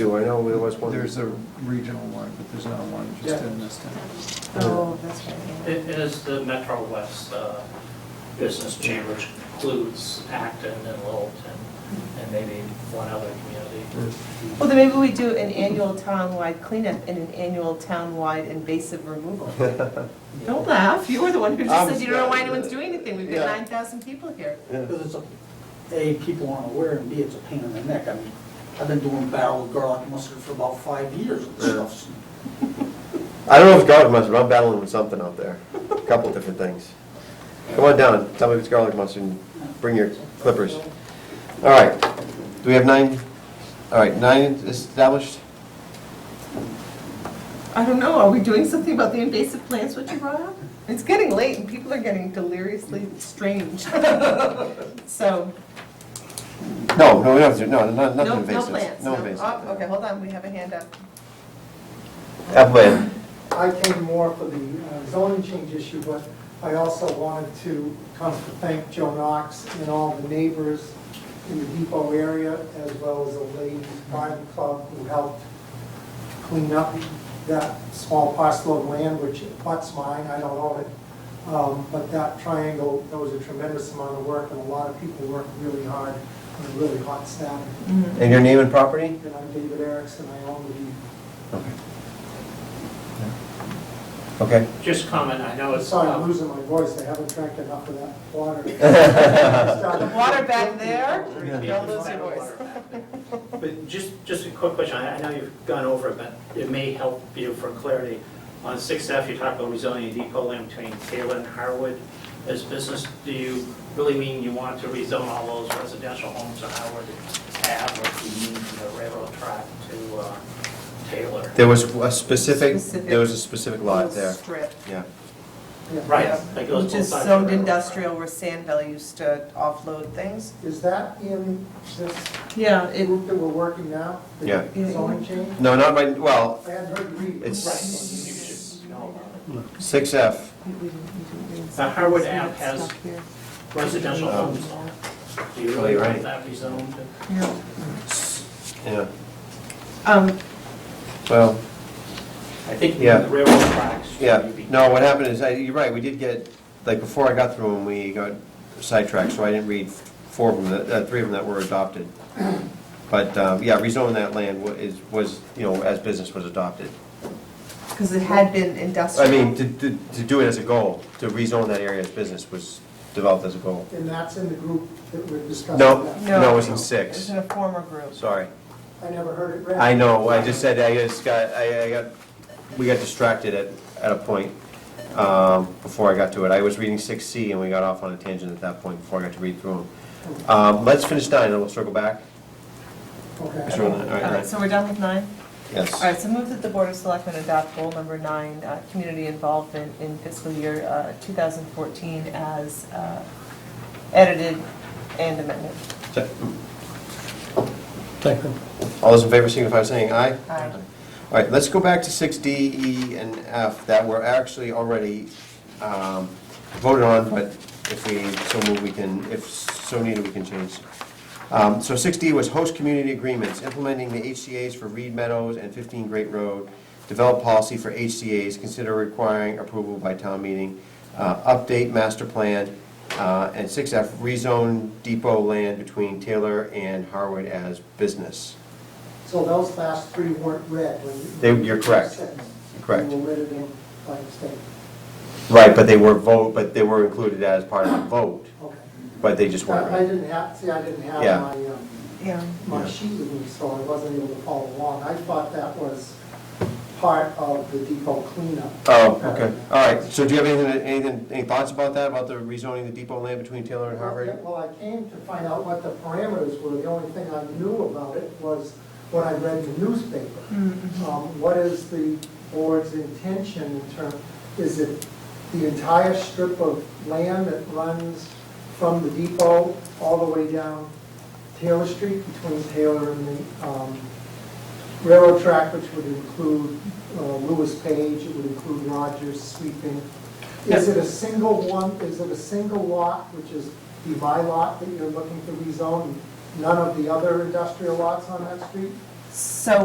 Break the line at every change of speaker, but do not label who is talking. two, I know there was one.
There's a regional one, but there's not one just
Yeah.
in this town.
Oh, that's right. yeah.
It is the Metro West uh, Business Chamber, which includes Acton and Littleton, and maybe one other community.
Well, then maybe we do an annual town-wide cleanup and an annual town-wide invasive removal. Don't laugh, you were the one who just said you don't know why anyone's doing anything, we've got
Yeah.
nine thousand people here.
Because it's, a- A, people aren't aware, and B, it's a pain in the neck. I mean, I've been doing barrel of garlic mustard for about five years and stuff.
I don't know if it's garlic mustard, but I'm battling with something out there, a couple different things. Come on down, tell me if it's garlic mustard, and bring your clippers. All right, do we have nine? All right, nine established?
I don't know, are we doing something about the invasive plants, what you brought up? It's getting late and people are getting deliriously strange. So,
No, no, we don't, have to- no, no- nothing
no, no
invasive.
plants, no,
No invasive.
Oh, okay, hold on, we have a hand up.
Upland,
I came more for the uh, zoning change issue, but I also wanted to come to thank Joe Knox and all the neighbors in the depot area, as well as the ladies' garden club who helped clean up that small parcel of land, which butts mine, I don't own it. Um, But that triangle, that was a tremendous amount of work, and a lot of people worked really hard on a really hot Saturday.
and your name and property?
And I'm David Erickson, I own the
Okay.
Just comment, I know it's,
Sorry, I'm
uh,
losing my voice, I haven't drank enough of that water.
The water back there, don't lose your voice.
but just, just a quick question, I I know you've gone over it, but it may help you for clarity. On six F, you talk about rezoning depot land between Taylor and Harwood as business. Do you really mean you want to rezone all those residential homes on Harwood Ave, or do you mean from the railroad track to uh, Taylor?
There was a specific,
Specific.
there was a specific lot
Little
there,
Strip.
yeah.
Right,
Yeah.
that goes both
Which is
sides of the
zoned
railroad track.
industrial where Sand Valley used to offload things.
Is that in this
Yeah, it,
group that we're working now? The
Yeah.
Zoning change?
No, not my, well,
I hadn't heard you read.
It's-
Right, you should know about
6F,
Uh, Harwood Ave has- it. residential
Um,
homes. Do you really
Oh, you're right.
want that rezoned?
Yeah.
yeah,
Um,
well.
I think
Yeah.
the railroad tracks. should
Yeah,
be-
no, what happened is, I- you're right, we did get, like, before I got through them, we got sidetracked, so I didn't read four of them, that- uh, three of them that were adopted. But, um, yeah, rezoning that land wa- is, was, you know, as business was adopted.
because it had been
I
industrial.
mean, to, to to do it as a goal, to rezone that area as business was developed as a goal.
And that's in the group that we're discussing
No,
now?
no, it was in
It was
six,
in a former group.
sorry.
I never heard it read.
I know, I just said, I just got, I, I got, we got distracted at, at a point, um, before I got to it. I was reading six C and we got off on a tangent at that point before I got to read through them. Um, let's finish nine and we'll circle back. Sure, all
Okay.
right,
All
all
right,
right,
so we're done with nine? All
yes.
right, so move that the Board of Selectmen adopt goal number nine, uh, community involvement in fiscal year uh, 2014 as uh, edited and amended.
Se- All those in favor signify by saying aye.
Aye.
All right, let's go back to six D, E, and F that were actually already, um, voted on, but if we so move, we can, if so needed, we can change. Um, so six D was host community agreements, implementing the HCA's for Reed Meadows and fifteen Great Road, develop policy for HCA's, consider requiring approval by town meeting, uh, update master plan, uh, and six F, rezone depot land between Taylor and Harwood as business.
So those last three weren't read when you...
They- you're correct.
Said.
Correct.
You were read it in by mistake.
Right, but they were vote, but they were included as part of the vote,
Okay.
but they just
Uh, I I
weren't.
didn't have, see, I didn't have
Yeah.
my, um,
Yeah.
my sheet with me, so I wasn't able to follow along. I thought that was part of the depot cleanup.
Oh, okay, all right, so do you have anything, anything, any thoughts about that, about the rezoning the depot land between Taylor and Harvard?
Well, I came to find out what the parameters were. The only thing I knew about it was what I read in the newspaper. Um, What is the board's intention in term, is it the entire strip of land that runs from the depot all the way down Taylor Street between Taylor and the um, railroad track, which would include uh, Lewis Page, it would include Rogers sweeping? Is it a single one, is it a single lot, which is the my lot that you're looking to rezone? None of the other industrial lots on that street?
So